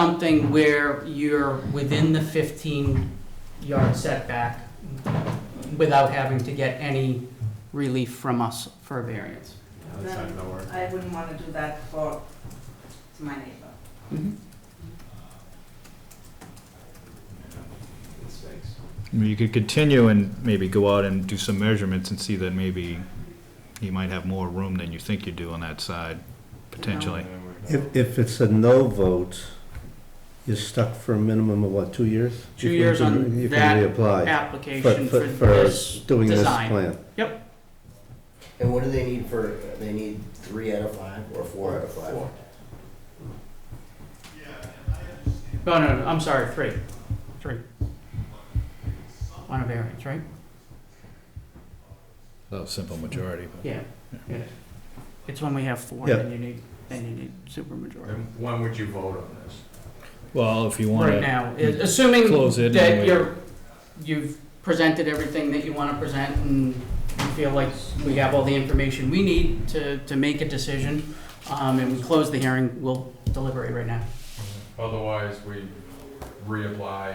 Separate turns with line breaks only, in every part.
something where you're within the 15-yard setback without having to get any relief from us for a variance.
That's not gonna work.
I wouldn't want to do that for, to my neighbor.
Mm-hmm.
I mean, You could continue and maybe go out and do some measurements and see that maybe you might have more room than you think you do on that side, potentially.
If, if it's a no vote, you're stuck for a minimum of what, two years?
Two
You can-
years on
You
that
can reapply.
Application for
us
this
Doing this
design.
plan.
And what do they need for, they need three out of five or four out of five?
No, Oh, no, no, I'm sorry, three, three. On a variance, right?
A simple majority. but-
Yeah, yeah. It's when we have four, then you need, then you need supermajority.
Then when would you vote on this?
Well, if you want
Right
to,
now, i- assuming
Close it and
that
wait.
you're, you've presented everything that you want to present and you feel like we have all the information we need to, to make a decision, um, and we close the hearing, we'll deliberate right now.
Otherwise, we reapply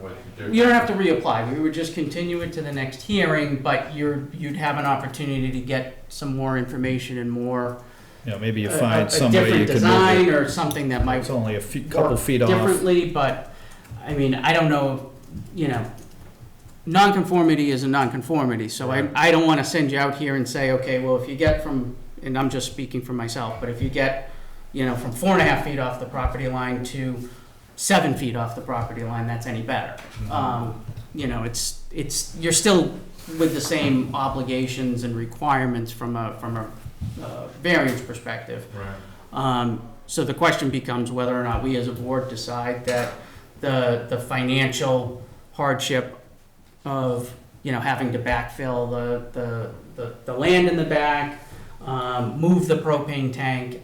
with. different-
You don't have to reapply, we would just continue it to the next hearing, but you're, you'd have an opportunity to get some more information and more. uh,
you know, maybe you
a- a-
find some way
A
you
different
can move
design
it.
or something that might
It's only a few, couple
work
feet off.
Differently, but, I mean, I don't know, you know, nonconformity is a nonconformity, so I, I don't wanna send you out here and say, okay, well, if you get from, and I'm just speaking for myself, but if you get, you know, from four and a half feet off the property line to seven feet off the property line, that's any better.
Mm-hmm.
Um, you know, it's, it's, you're still with the same obligations and requirements from a, from a, uh, variance perspective.
Right.
Um, So the question becomes whether or not we as a board decide that the, the financial hardship of, you know, having to backfill the, the, the, the land in the back, um, move the propane tank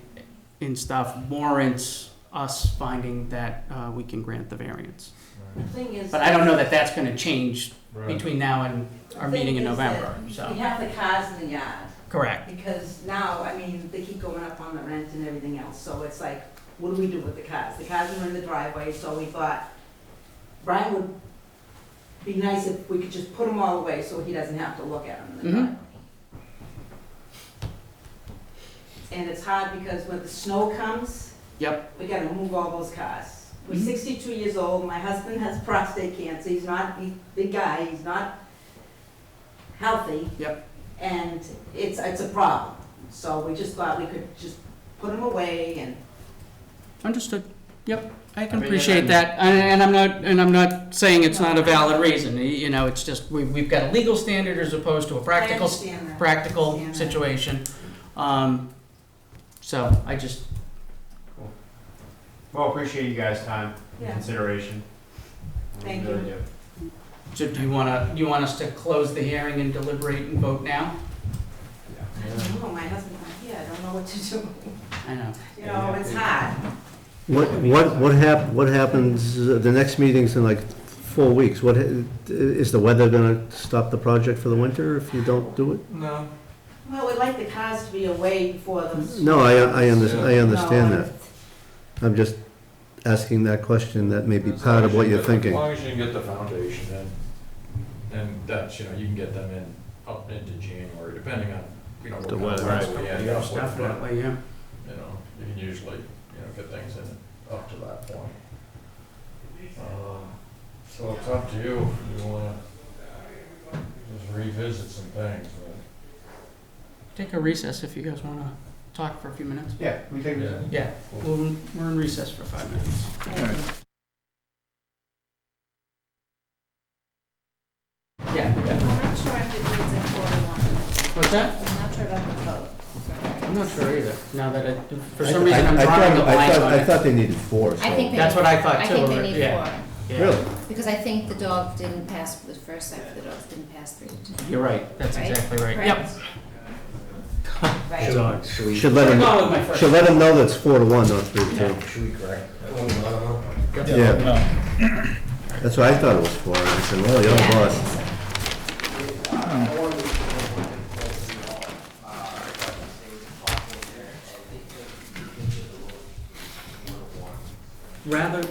and stuff warrants us finding that uh, we can grant the variance.
The thing is.
But I don't know that that's gonna change
Right.
between now and our meeting in November, so,
We have the cars in the yard,
correct.
because now, I mean, they keep going up on the rent and everything else, so it's like, what do we do with the cars? The cars are in the driveway, so we thought, Brian would be nice if we could just put them all away, so he doesn't have to look at them in the
Mhm.
driveway. And it's hard, because when the snow comes,
Yep,
we gotta move all those cars. We're
Mhm.
sixty-two years old, my husband has prostate cancer, he's not, he's a big guy, he's not healthy.
Yep.
And it's, it's a problem, so we just thought we could just put them away and
understood. Yep, I
I
can
mean,
appreciate
and-
that, and, and I'm not, and I'm not saying it's not a valid reason, y- you know, it's just, we, we've got a legal standard as opposed to a practical, s-
I understand that.
practical
understand that.
situation. Um, so I just,
Well, appreciate you guys' time and
Yeah.
consideration.
Thank
Really
you.
do.
so do you wanna, you want us to close the hearing and deliberate and vote now?
I don't know, my husband's not here, I don't know what to do,
I know,
you know, it's hard.
What, what, what hap, what happens, uh, the next meeting's in like four weeks, what, ha- is the weather gonna stop the project for the winter if you don't do it?
No.
Well, we'd like the cars to be away before those.
No, I, I under, I
No,
understand that,
it's-
I'm just asking that question, that may be part of what you're
As
thinking.
long as you can get the foundation in, and that's, you know, you can get them in up into January, depending on, you know.
The
what kind of
weather.
roads we end up with, but,
definitely, yeah.
You know, you can usually, you know, get things in up to that point. Um, So it's up to you, if you wanna just revisit some things, but.
Take a recess if you guys wanna talk for a few minutes.
Yeah, we take
Yeah.
Yeah, we'll, we're in recess for five minutes. Yeah, yeah.
I'm not sure if it needs a quarter one.
What's that?
I'm not sure about the vote.
I'm not sure either, now that I, for
I-
some reason I'm
I- I
drawing a
thought- I
blank
thought-
on
I
it.
thought they needed four, so.
I think
That's what I thought
I
too,
think they need
yeah.
four,
Yeah.
Really?
because I think the dog didn't pass, the first act, the dogs didn't pass three to two.
You're right, that's
Right?
exactly right, yep.
Right.
Should we, should
Should let
I'm going
them,
with my first.
should let them know that's four to one, not three to two.
we correct? that? uh, Well, I don't know.
Yeah,
No.
that's what I thought it was for, I said, well, you're the boss.
rather